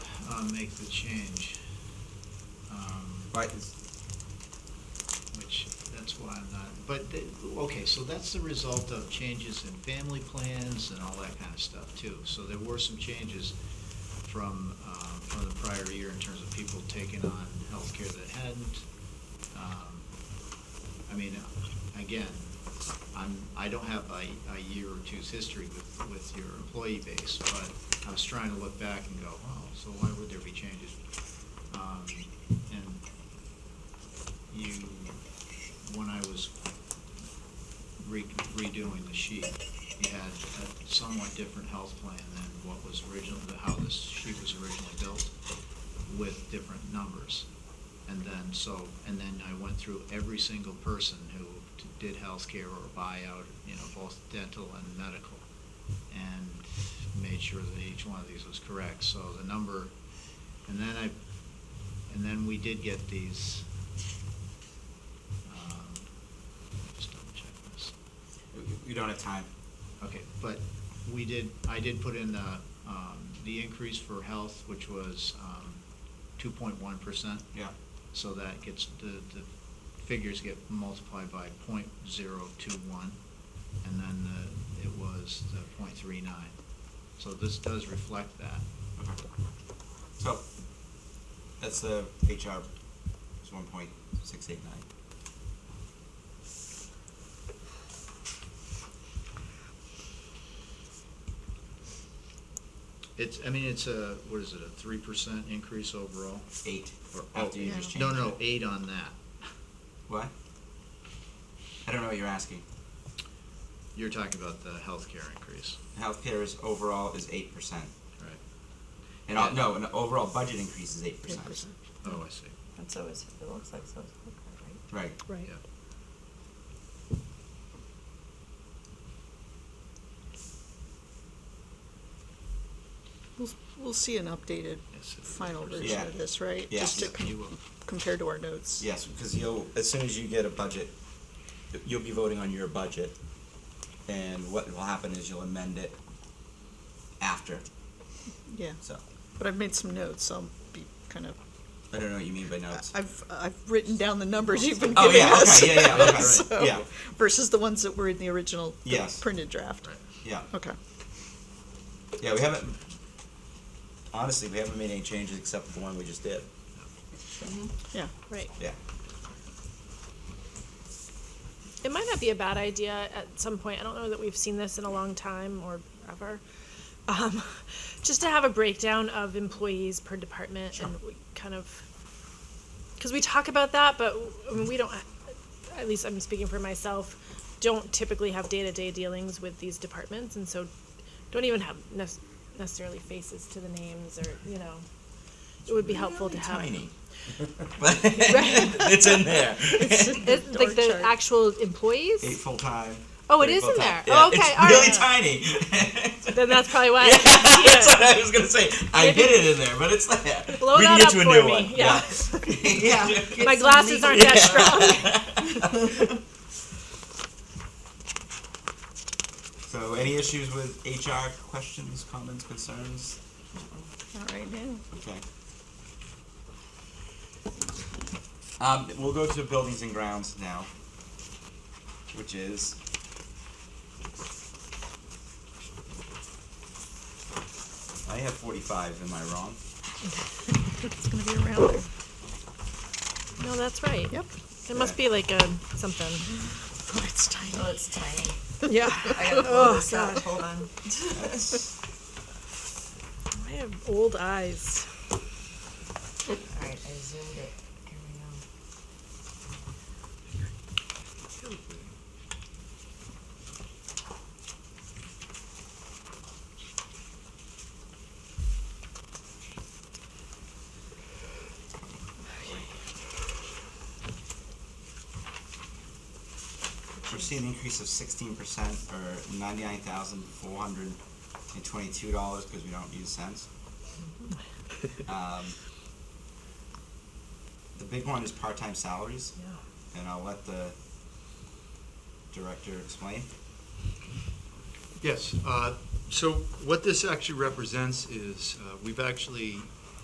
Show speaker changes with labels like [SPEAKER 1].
[SPEAKER 1] want to uh, make the change, um,
[SPEAKER 2] Right, it's-
[SPEAKER 1] which, that's why I'm not, but, th- okay, so that's the result of changes in family plans and all that kind of stuff, too. So there were some changes from, um, from the prior year in terms of people taking on healthcare that hadn't. Um, I mean, again, I'm, I don't have a, a year or two's history with, with your employee base, but I was trying to look back and go, oh, so why would there be changes? Um, And you, when I was re- redoing the sheet, you had a somewhat different health plan than what was originally, how this sheet was originally built with different numbers. And then, so, and then I went through every single person who did healthcare or buyout, you know, both dental and medical, and made sure that each one of these was correct. So the number, and then I, and then we did get these, um, just double check this.
[SPEAKER 2] we- we don't have time.
[SPEAKER 1] Okay, but we did, I did put in the, um, the increase for health, which was, um, two point one percent.
[SPEAKER 2] Yeah,
[SPEAKER 1] So that gets, the, the figures get multiplied by point zero two one, and then the, it was the point three nine. So this does reflect that.
[SPEAKER 2] okay. So, that's the HR, it's one point six eight nine.
[SPEAKER 1] It's, I mean, it's a, what is it, a three percent increase overall?
[SPEAKER 2] Eight,
[SPEAKER 1] Or-
[SPEAKER 2] after you just changed it.
[SPEAKER 1] No, no, eight on that.
[SPEAKER 2] What? I don't know what you're asking.
[SPEAKER 1] You're talking about the healthcare increase,
[SPEAKER 2] Healthcare is overall is eight percent.
[SPEAKER 1] right?
[SPEAKER 2] And, all- no, an overall budget increase is eight
[SPEAKER 3] Eight
[SPEAKER 2] percent.
[SPEAKER 3] percent.
[SPEAKER 1] Oh, I see,
[SPEAKER 3] And so is, it looks like so, is healthcare, right?
[SPEAKER 2] Right,
[SPEAKER 1] yeah.
[SPEAKER 3] Right. We'll, we'll see an updated
[SPEAKER 1] Yes, it-
[SPEAKER 3] final
[SPEAKER 1] Yeah.
[SPEAKER 3] version of this, right?
[SPEAKER 2] Yeah.
[SPEAKER 3] Just to
[SPEAKER 1] Yeah,
[SPEAKER 3] com-
[SPEAKER 1] you uh, will.
[SPEAKER 3] compare to our notes.
[SPEAKER 2] yes, because you'll, as soon as you get a budget, you'll be voting on your budget. And what will happen is you'll amend it after,
[SPEAKER 3] Yeah,
[SPEAKER 2] so,
[SPEAKER 3] but I've made some notes, so I'll be kind of,
[SPEAKER 2] I don't know what you mean by notes.
[SPEAKER 3] I've, I've written down the numbers you've been
[SPEAKER 2] Oh,
[SPEAKER 3] giving
[SPEAKER 2] yeah,
[SPEAKER 3] us.
[SPEAKER 2] okay, yeah, yeah, okay,
[SPEAKER 3] So-
[SPEAKER 2] yeah.
[SPEAKER 3] Versus the ones that were in the original
[SPEAKER 2] Yes.
[SPEAKER 3] printed draft.
[SPEAKER 1] Right.
[SPEAKER 2] Yeah.
[SPEAKER 3] Okay,
[SPEAKER 2] Yeah, we haven't, honestly, we haven't made any changes except for the one we just did.
[SPEAKER 3] yeah.
[SPEAKER 4] Right.
[SPEAKER 2] Yeah.
[SPEAKER 4] It might not be a bad idea at some point. I don't know that we've seen this in a long time or ever. Um, just to have a breakdown of employees per department and we kind of, because we talk about that, but I mean, we don't, at least I'm speaking for myself, don't typically have day to day dealings with these departments. And so don't even have nec- necessarily faces to the names or, you know, it would be helpful to have.
[SPEAKER 2] Tiny. But it's in there.
[SPEAKER 4] It's like the
[SPEAKER 3] chart.
[SPEAKER 4] actual employees?
[SPEAKER 2] Eight full-time.
[SPEAKER 4] Oh, it
[SPEAKER 2] three
[SPEAKER 4] is in
[SPEAKER 2] full-time.
[SPEAKER 4] there.
[SPEAKER 2] Yeah,
[SPEAKER 4] Oh, okay,
[SPEAKER 2] it's
[SPEAKER 4] all
[SPEAKER 2] really
[SPEAKER 4] right.
[SPEAKER 2] tiny.
[SPEAKER 4] Then that's probably why.
[SPEAKER 2] That's what I was gonna say. I
[SPEAKER 4] Maybe-
[SPEAKER 2] hid it in there, but it's there.
[SPEAKER 4] Blow
[SPEAKER 2] we can
[SPEAKER 4] that
[SPEAKER 2] get
[SPEAKER 4] up
[SPEAKER 2] you a
[SPEAKER 4] for
[SPEAKER 2] new
[SPEAKER 4] me,
[SPEAKER 2] one.
[SPEAKER 4] yeah.
[SPEAKER 2] Yeah.
[SPEAKER 4] My glasses aren't that strong.
[SPEAKER 2] So, any issues with HR questions, comments, concerns?
[SPEAKER 3] Not right now.
[SPEAKER 2] Okay. Um, we'll go to buildings and grounds now, which is. I have forty-five, am I wrong?
[SPEAKER 3] It's gonna be around there.
[SPEAKER 4] No, that's right.
[SPEAKER 3] Yep.
[SPEAKER 4] There must be like a something.
[SPEAKER 3] Oh, it's tiny.
[SPEAKER 5] Oh, it's tiny.
[SPEAKER 4] Yeah. Oh,
[SPEAKER 5] I gotta pull this out. Hold on.
[SPEAKER 2] That's,
[SPEAKER 4] I have old eyes.
[SPEAKER 5] All right, I zoomed it. Here we go.
[SPEAKER 2] we're seeing an increase of sixteen percent or ninety-nine thousand four hundred and twenty-two dollars because we don't use cents. Um, The big one is part-time salaries.
[SPEAKER 4] Yeah.
[SPEAKER 2] and I'll let the director explain.
[SPEAKER 6] Yes, uh, so what this actually represents is, uh, we've actually